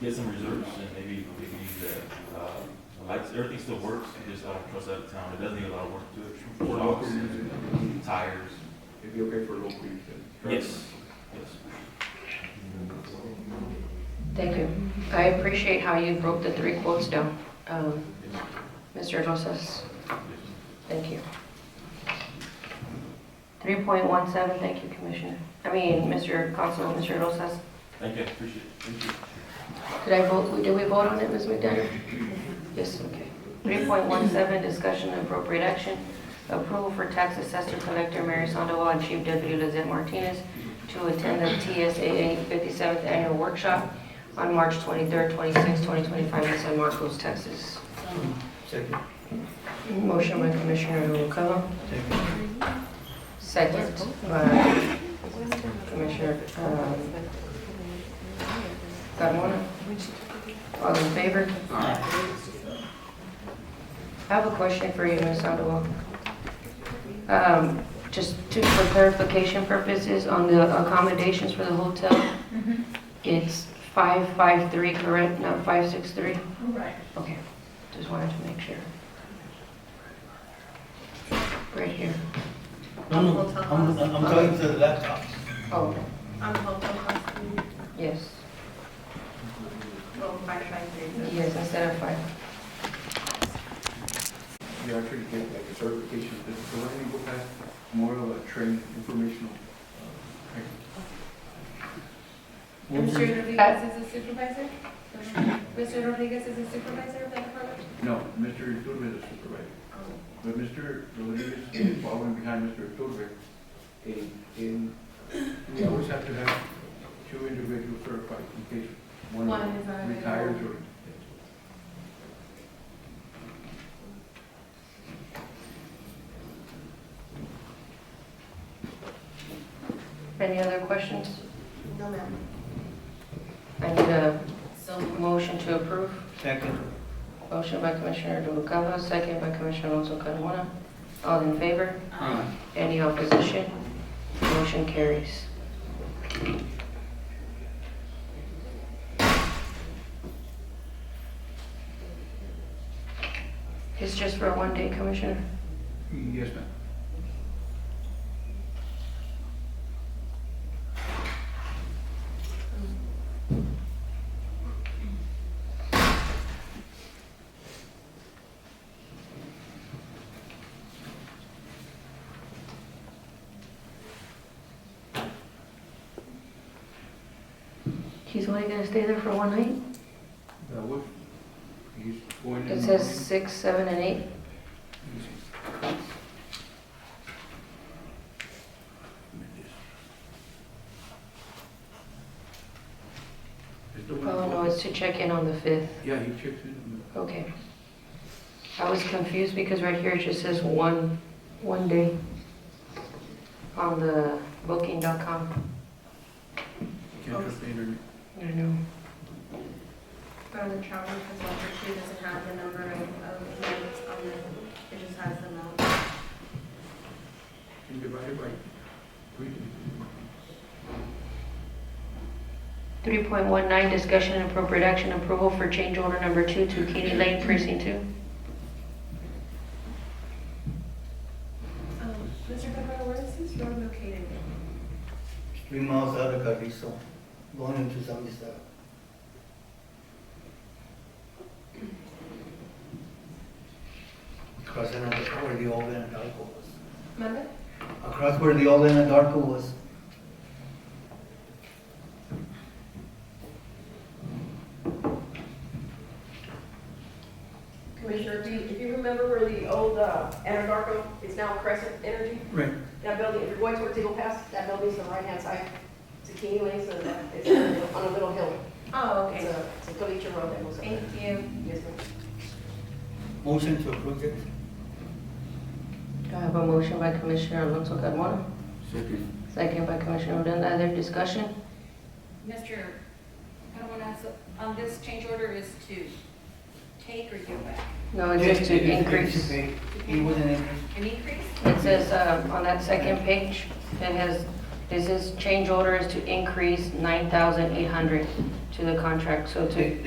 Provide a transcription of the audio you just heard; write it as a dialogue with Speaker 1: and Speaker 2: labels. Speaker 1: get some reserves and maybe, maybe the, uh, the lights, everything still works, and just all truss out of town, it doesn't need a lot of work to it.
Speaker 2: For local
Speaker 1: Locks,
Speaker 2: music,
Speaker 1: Tires,
Speaker 2: it'd be okay for local music.
Speaker 1: yes, yes.
Speaker 3: Thank you. I appreciate how you broke the three quotes down. Um, Mr. Rosas, thank you. 3.17, thank you, Commissioner. I mean, Mr. Council, Mr. Rosas.
Speaker 1: Thank you, I appreciate it, thank you.
Speaker 3: Did I vote, did we vote on it, Ms. McDonough? Yes, okay. 3.17, discussion and appropriate action, approval for tax assessor collector Mary Sandoval and Chief Deputy Lizette Martinez to attend the TSAA 57th Annual Workshop on March 23rd, 26, 2025 in San Marcos, Texas.
Speaker 2: Second.
Speaker 3: Motion by Commissioner Noguera. Second by Commissioner um, Carmona. All in favor? I have a question for you, Ms. Sandoval. Um, Just to, for clarification purposes, on the accommodations for the hotel, it's 553, correct, not 563?
Speaker 4: Right.
Speaker 3: Okay, just wanted to make sure. Right here.
Speaker 5: No, no, I'm, I'm talking to the laptop.
Speaker 3: Oh,
Speaker 4: On hotel costs,
Speaker 3: yes,
Speaker 4: well, five five three.
Speaker 3: yes, instead of five.
Speaker 2: You actually get like a certification, this is the way we go past more of a training, informational. uh,
Speaker 4: Mr. Rodriguez is a supervisor? Mr. Rodriguez is a supervisor of that department?
Speaker 2: No, Mr. Iturbe is supervisor, but Mr. Rodriguez is following behind Mr. Iturbe. In, in, we always have to have two individuals certified in case one
Speaker 4: One is uh, not available.
Speaker 2: retires or.
Speaker 3: Any other questions?
Speaker 4: No, ma'am.
Speaker 3: I need a
Speaker 4: So.
Speaker 3: motion to approve.
Speaker 5: Second.
Speaker 3: Motion by Commissioner Noguera, second by Commissioner Alonso Carmona. All in favor?
Speaker 2: Uh,
Speaker 3: Any opposition? Motion carries. It's just for one day, Commissioner?
Speaker 2: Yes, ma'am.
Speaker 3: He's only gonna stay there for one night?
Speaker 2: That was, he's going in.
Speaker 3: It says six, seven, and eight.
Speaker 2: It's the one-
Speaker 3: Oh, no, it's to check in on the fifth.
Speaker 2: Yeah, he checks in. on the-
Speaker 3: Okay. I was confused because right here it just says one, one day on the booking.com.
Speaker 2: Can't trust the internet.
Speaker 3: I don't know.
Speaker 4: From the travel consultant, she doesn't have the number of, of nights on the, it just has the amount.
Speaker 2: Can you divide it by three?
Speaker 3: 3.19, discussion and appropriate action approval for change order number two to Katy Lane Precinct 2.
Speaker 4: Um, Mr. Cabrera, where is this road located?
Speaker 5: Three miles out of Carrizo, going into Zambisa. Crossing out where the old Anadarko was.
Speaker 4: Manda?
Speaker 5: Across where the old Anadarko was.
Speaker 6: Commissioner, if you, if you remember where the old uh, Anadarko is now Crescent Energy,
Speaker 2: Right.
Speaker 6: that building, if you're going towards Eagle Pass, that building's on the right-hand side. It's a Kenny Lane, so that- it's on a- on a little hill.
Speaker 4: Oh,
Speaker 6: It's
Speaker 4: okay.
Speaker 6: a, it's a collegiate road that goes up
Speaker 4: Thank
Speaker 6: there.
Speaker 4: you.
Speaker 6: Yes, ma'am.
Speaker 5: Motion to approve it.
Speaker 3: I have a motion by Commissioner Alonso Carmona,
Speaker 2: Second.
Speaker 3: second by Commissioner Odena. Other discussion?
Speaker 7: Mr. Carmona, so
Speaker 4: um,
Speaker 7: on this change order is to take or give back?
Speaker 3: No, it says to
Speaker 5: It- it- it-
Speaker 3: increase. It
Speaker 5: It was an increase.
Speaker 7: An increase?
Speaker 3: says uh, on that second page, it has, this is, change order is to increase 9,800 to the contract, so to